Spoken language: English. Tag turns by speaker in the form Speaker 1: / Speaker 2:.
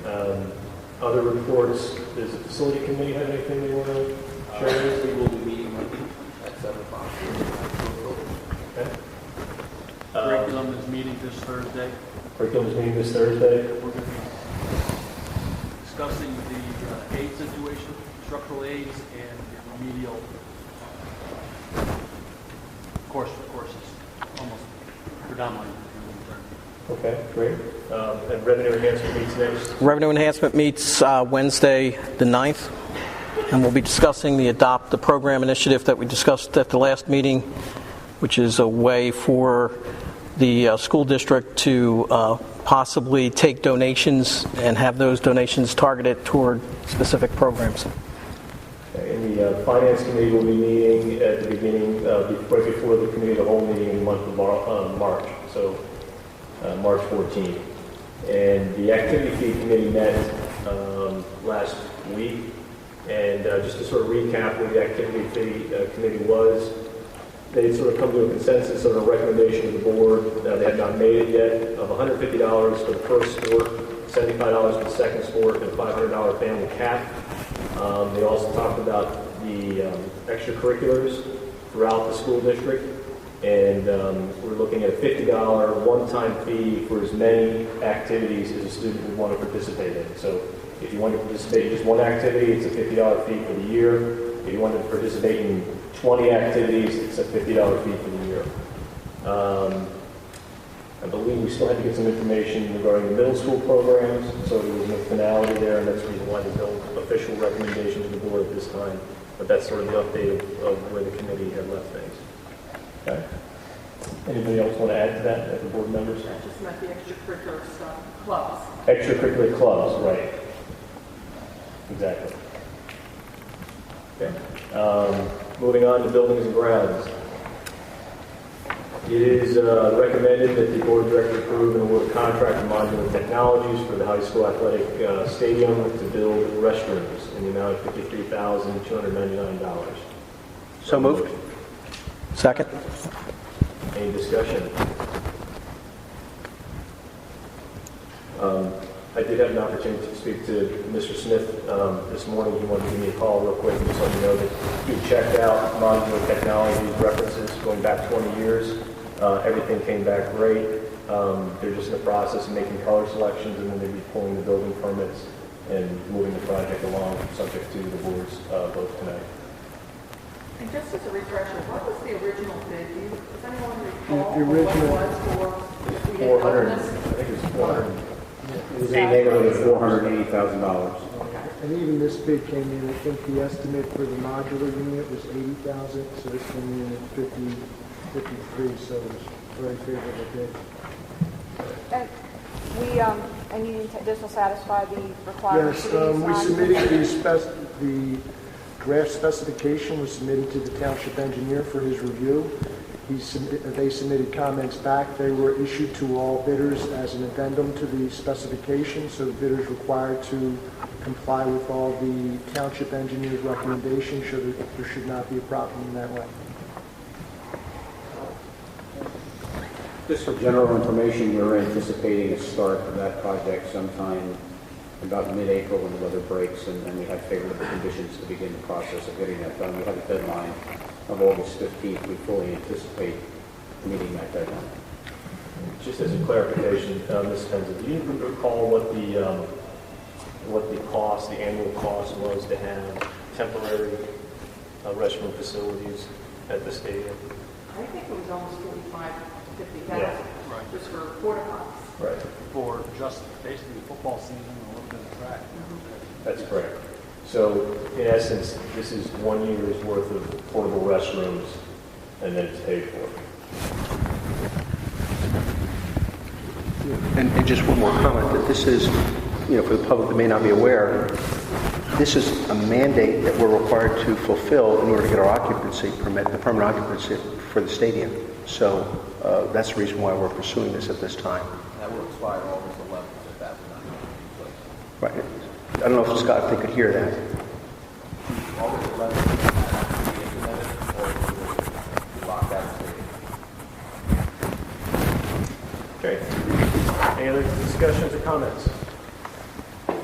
Speaker 1: Um, Other reports, does the facility committee have anything they want to share with us?
Speaker 2: We will be meeting at seven o'clock.
Speaker 1: Uh,
Speaker 3: Curriculum is meeting this Thursday.
Speaker 1: Curriculum's meeting this Thursday.
Speaker 3: We're going to be discussing the uh, aid situation, structural aids, and the remedial uh, course courses, almost predominantly.
Speaker 1: Okay, great. Um, And revenue enhancement meets next.
Speaker 4: Revenue Enhancement meets uh, Wednesday, the 9th, and we'll be discussing the Adopt the Program initiative that we discussed at the last meeting, which is a way for the uh, school district to uh, possibly take donations and have those donations targeted toward specific programs.
Speaker 1: Okay, And the uh, finance committee will be meeting at the beginning, uh, be- right before the committee, of the whole meeting in the month of Mar- uh, March, so uh, March 14. And the activity fee committee met um, last week, and uh, just to sort of recap what the activity fee uh, committee was, they sort of come to a consensus on a recommendation to the board, uh, they have not made it yet, of $150 for the first sport, $75 for the second sport, and a $500 family cap. Um, They also talked about the um, extracurriculars throughout the school district, and um, we're looking at a $50 one-time fee for as many activities as a student would want to participate in. So if you want to participate in just one activity, it's a $50 fee for the year. If you want to participate in 20 activities, it's a $50 fee for the year. Um, I believe we still had to get some information regarding the middle school programs, so there was no finality there, and that's the reason why there's no official recommendation to the board at this time, but that's sort of the update of- of where the committee had left things. Okay? Anybody else want to add to that, at the board members?
Speaker 5: That just meant the extracurricular stuff, clubs.
Speaker 1: Extracurricular clubs, right. Exactly. Okay. Um, Moving on to buildings and grounds. It is uh, recommended that the board of directors approve and award a contract to Modular Technologies for the high school athletic uh, stadium to build restrooms in the amount of $53,299.
Speaker 4: So moved. Second?
Speaker 1: Any discussion? Um, I did have an opportunity to speak to Mr. Smith um, this morning. He wanted to give me a call real quick and just let me know that he checked out modular technologies references going back 20 years. Uh, Everything came back great. Um, They're just in the process of making color selections, and then they'll be pulling the building permits and moving the project along, subject to the board's uh, vote tonight.
Speaker 5: And just as a refresher, what was the original bid? Do you- Does anyone recall
Speaker 6: The- the
Speaker 5: what it
Speaker 6: original-
Speaker 5: was for if we had
Speaker 1: 400,
Speaker 5: done
Speaker 1: I
Speaker 5: this?
Speaker 1: think it was 400.
Speaker 6: And
Speaker 1: It was in the neighborhood of 480,000.
Speaker 6: even this bid came in, I think the estimate for the modular unit was eighty thousand, so this came in at fifty, fifty-three, so it was very favorable bid.
Speaker 7: And we, um, and you need to- this will satisfy the requirements.
Speaker 6: Yes,
Speaker 7: we
Speaker 6: um, we
Speaker 7: signed.
Speaker 6: submitted the spec, the draft specification was submitted to the township engineer for his review. He submitted, they submitted comments back, they were issued to all bidders as an addendum to the specification, so the bidders required to comply with all the township engineer's recommendations, should, there should not be a problem in that way.
Speaker 8: Just for general information, we're anticipating a start of that project sometime about mid-April when the weather breaks and and we have favorable conditions to begin the process of getting that done. We have a deadline of August 15th. We fully anticipate meeting that deadline.
Speaker 1: Just as a clarification, uh, Ms. Penza, do you recall what the, um, what the cost, the annual cost was to have temporary uh, restroom facilities at the stadium?
Speaker 5: I think it was almost 45, 50,000
Speaker 1: Yeah.
Speaker 3: Right.
Speaker 5: just for porta potties.
Speaker 1: Right.
Speaker 3: For just basically the football season and a little bit of track.
Speaker 1: That's correct. So in essence, this is one year's worth of portable restrooms, and then it's paid for.
Speaker 9: And and just one more comment, that this is, you know, for the public that may not be aware, this is a mandate that we're required to fulfill in order to get our occupancy permit, the permanent occupancy for the stadium. So uh, that's the reason why we're pursuing this at this time.
Speaker 2: That will expire August eleventh if that would not be
Speaker 9: Right. I don't know if Scott, if they could hear that.
Speaker 2: in place. August eleventh, that would be implemented or we will lock that stadium.
Speaker 1: Okay. Any other discussions or comments?